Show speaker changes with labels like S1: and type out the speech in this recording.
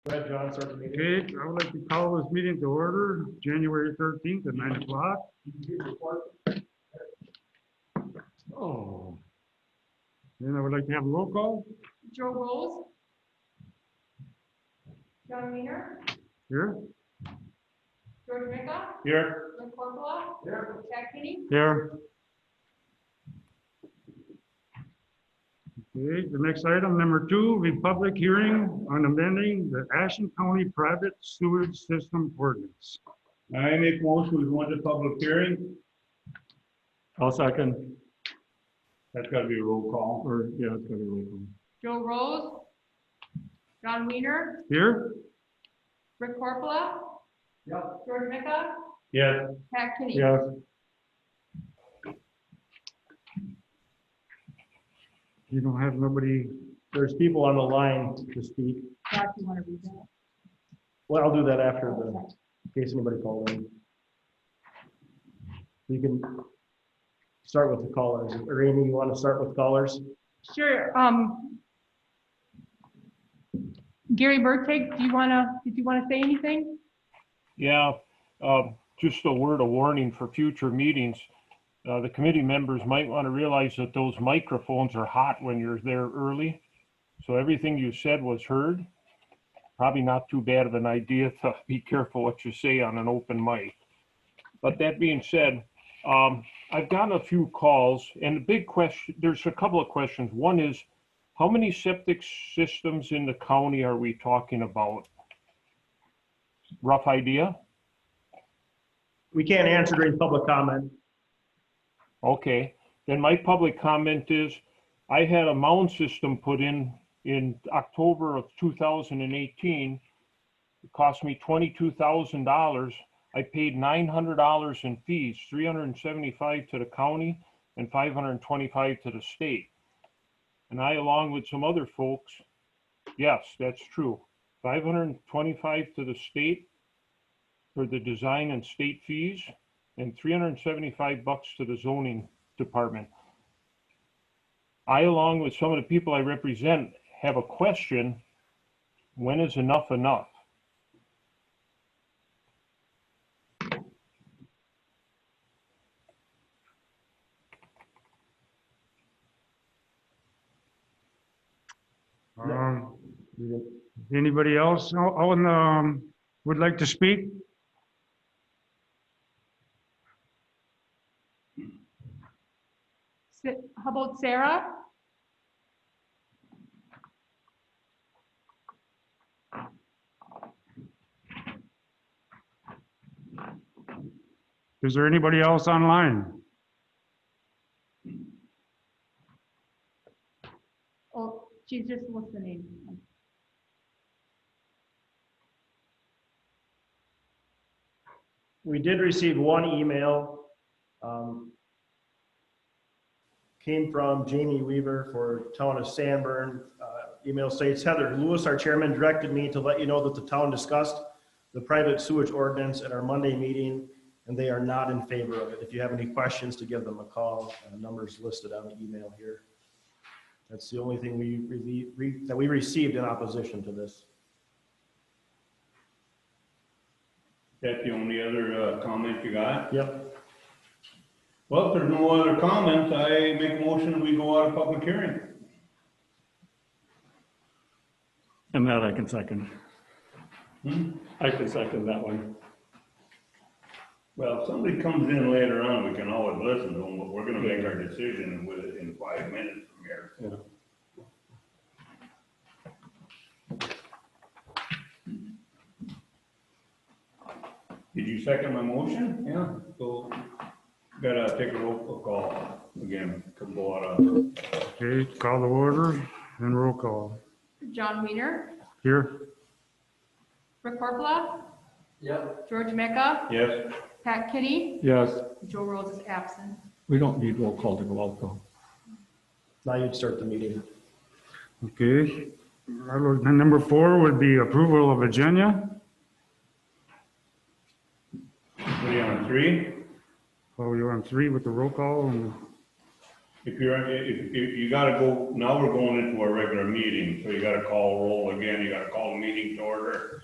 S1: Go ahead, John, start the meeting.
S2: Okay, I would like to call this meeting to order, January thirteenth at nine o'clock. Oh. Then I would like to have a roll call
S3: Joe Rolls. John Wiener,
S2: here,
S3: George Mika,
S1: Here.
S3: Lynn Corpola,
S1: Here.
S3: Jack Kenny,
S2: there. Okay, the next item, number two, Republic hearing on amending the Ashen County Private Sewage System Ordinance.
S1: I make motion, we go into public hearing.
S2: I'll second.
S1: That's gotta be a roll call.
S2: Or, yeah, it's gonna be roll call.
S3: Joe Rolls, John Wiener,
S2: Here,
S3: Rick Corpola,
S1: Yep.
S3: George Mika,
S1: Yes.
S3: Jack Kenny.
S2: yes. You don't have nobody
S4: There's people on the line to speak.
S3: Jack, you want to read that?
S4: Well, I'll do that after the, in case anybody called in. You can start with the callers. Or Amy, you want to start with callers?
S3: Sure, um. Gary Bertig, do you want to, did you want to say anything?
S5: Yeah, um, just a word of warning for future meetings. Uh, The committee members might want to realize that those microphones are hot when you're there early. So everything you said was heard. Probably not too bad of an idea to be careful what you say on an open mic. But that being said, um, I've gotten a few calls and the big question, there's a couple of questions. One is, how many septic systems in the county are we talking about? Rough idea?
S4: We can't answer during public comment.
S5: Okay, then my public comment is, I had a mound system put in, in October of two thousand and eighteen. It cost me twenty-two thousand dollars. I paid nine hundred dollars in fees, three hundred and seventy-five to the county and five hundred and twenty-five to the state. And I, along with some other folks, yes, that's true, five hundred and twenty-five to the state for the design and state fees, and three hundred and seventy-five bucks to the zoning department. I, along with some of the people I represent, have a question. When is enough enough?
S2: Um, Anybody else o- on, um, would like to speak?
S3: Sa- How about Sarah?
S2: Is there anybody else online?
S3: Oh, she's just listening.
S4: We did receive one email. um, Came from Jamie Weaver for Town of Sanborn. Uh, Email states Heather Lewis, our chairman, directed me to let you know that the town discussed the private sewage ordinance at our Monday meeting, and they are not in favor of it. If you have any questions, to give them a call. Uh, Numbers listed on the email here. That's the only thing we, really- re- that we received in opposition to this.
S1: That's the only other uh, comment you got?
S4: Yep,
S1: Well, if there's no other comments, I make a motion, we go out of public hearing.
S6: And that I can second.
S1: Hmm?
S6: I can second that one.
S1: Well, if somebody comes in later on, we can always listen to them, but we're gonna make our decision with, in five minutes from here. Did you second my motion? Yeah. So, gotta take a roll call again, come go out of,
S2: Okay, call the order and roll call.
S3: John Wiener,
S2: Here,
S3: Rick Corpola? Yep. George Mika,
S1: yes?
S3: Pat Kenny,
S6: Yes,
S3: Joe Rolls is absent.
S6: we don't need roll call to go out though.
S4: now you'd start the meeting.
S2: okay. I would- and Number four would be approval of agenda.
S1: What are you on, three?
S2: Oh, you're on three with the roll call and
S1: If you're, if, if you gotta go, now we're going into a regular meeting, so you gotta call roll again, you gotta call the meeting to order.